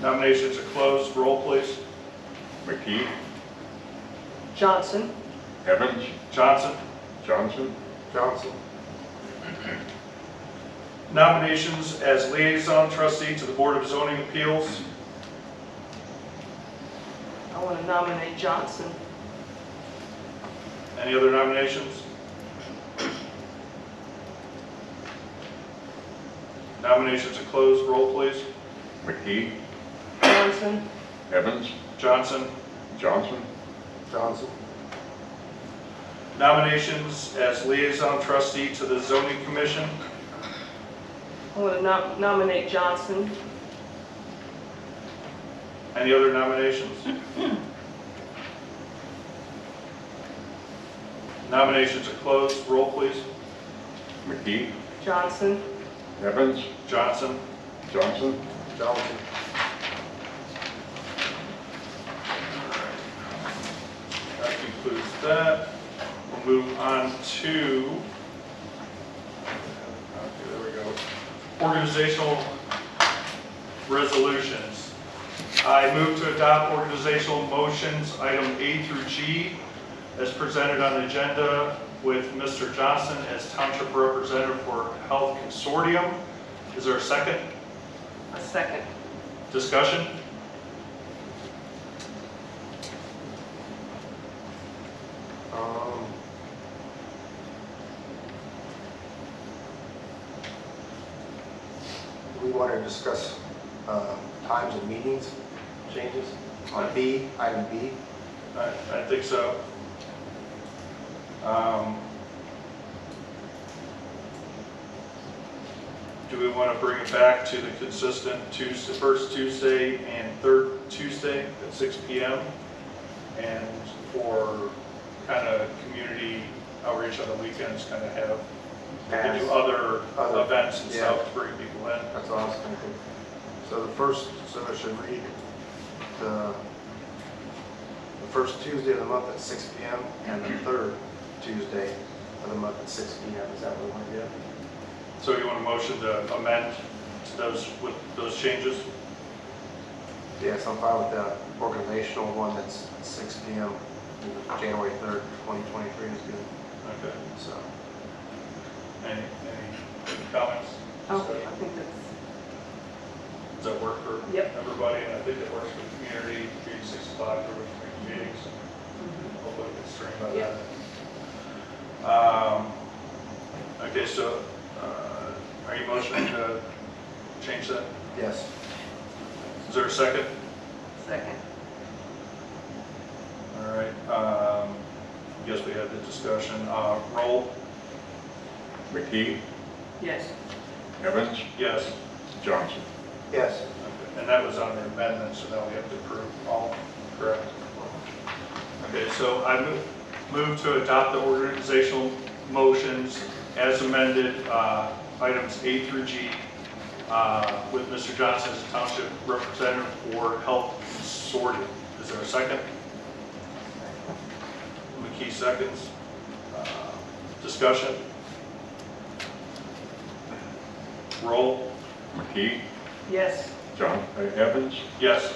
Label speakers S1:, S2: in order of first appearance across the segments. S1: Nominations are closed. Roll, please.
S2: McKee,
S3: Johnson,
S2: Evans,
S1: Johnson.
S2: Johnson,
S1: Johnson. Nominations as liaison trustee to the Board of Zoning Appeals.
S3: I want to nominate Johnson.
S1: Any other nominations? Nominations are closed. Roll, please.
S2: McKee,
S3: Johnson,
S2: Evans,
S1: Johnson.
S2: Johnson,
S1: Johnson. Nominations as liaison trustee to the zoning commission.
S3: I want to nominate Johnson.
S1: Any other nominations? Nominations are closed. Roll, please.
S2: McKee,
S3: Johnson,
S2: Evans,
S1: Johnson.
S2: Johnson,
S1: Johnson. That concludes that. We'll move on to, okay, there we go, organizational resolutions. I move to adopt organizational motions, item A through G, as presented on the agenda with Mr. Johnson as Township Representative for Health Consortium. Is there a second?
S3: a second.
S1: Discussion?
S4: Um, We want to discuss uh, times and meetings changes on B, item B.
S1: I, I think so. Um, Do we want to bring it back to the consistent Tuesday, first Tuesday and third Tuesday at 6 PM? And for kind of community outreach on the weekends, kind of have, and do
S4: As-
S1: other
S4: Other-
S1: events and
S4: yeah.
S1: stuff to bring people in?
S4: That's all I was thinking. So the first, so I should read the, the first Tuesday of the month at 6 PM and the third Tuesday of the month at 6 PM. Is that what we want to do?
S1: So you want a motion to amend to those, with those changes?
S4: Yes, I'm fine with the organizational one that's at 6 PM, January 3rd, 2023 is good,
S1: Okay.
S4: so.
S1: Any, any comments?
S3: Oh, I think that's,
S1: Does that work for
S3: Yep.
S1: everybody? And I think it works for the community, community six o'clock, we're going to make meetings, hopefully it's streamed by
S3: Yep.
S1: then. Um, okay, so, uh, are you motioning to change that?
S4: Yes,
S1: Is there a second?
S3: second.
S1: All right, um, yes, we had the discussion, uh, roll,
S2: McKee,
S3: Yes,
S2: Evans,
S1: yes.
S2: Johnson.
S4: yes,
S1: And that was under amendment, so now we have to approve all, correct? Okay, so I move- move to adopt the organizational motions as amended, uh, items A through G, uh, with Mr. Johnson as Township Representative for Health Consortium. Is there a second? McKee seconds. Uh, Discussion? Roll?
S2: McKee,
S3: yes,
S2: John, uh, Evans,
S1: Yes.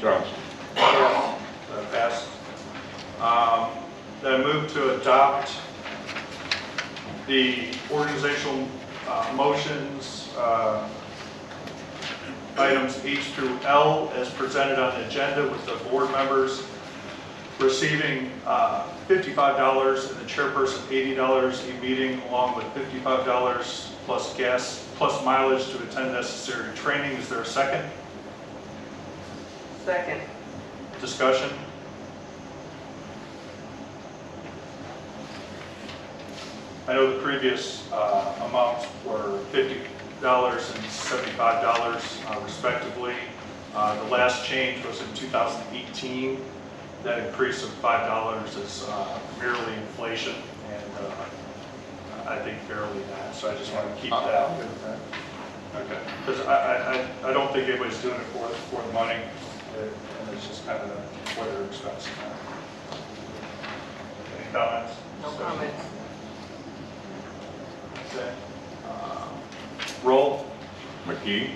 S2: Johnson.
S1: That passed. Um, Then move to adopt the organizational uh, motions, uh, items H through L as presented on the agenda with the board members receiving uh, $55 and the chairperson $80 a meeting along with $55 plus gas, plus mileage to attend necessary training. Is there a second?
S3: second.
S1: Discussion? I know the previous uh, amounts were $50 and $75 uh, respectively. Uh, The last change was in 2018. That increase of $5 is uh, merely inflation and uh, I think fairly not, so I just want to keep that out.
S4: I'm good with that.
S1: Okay, because I, I, I don't think anybody's doing it for, for the money, uh, and it's just kind of what they're expecting. Any comments?
S3: No comments.
S1: Okay. Uh, Roll?
S2: McKee,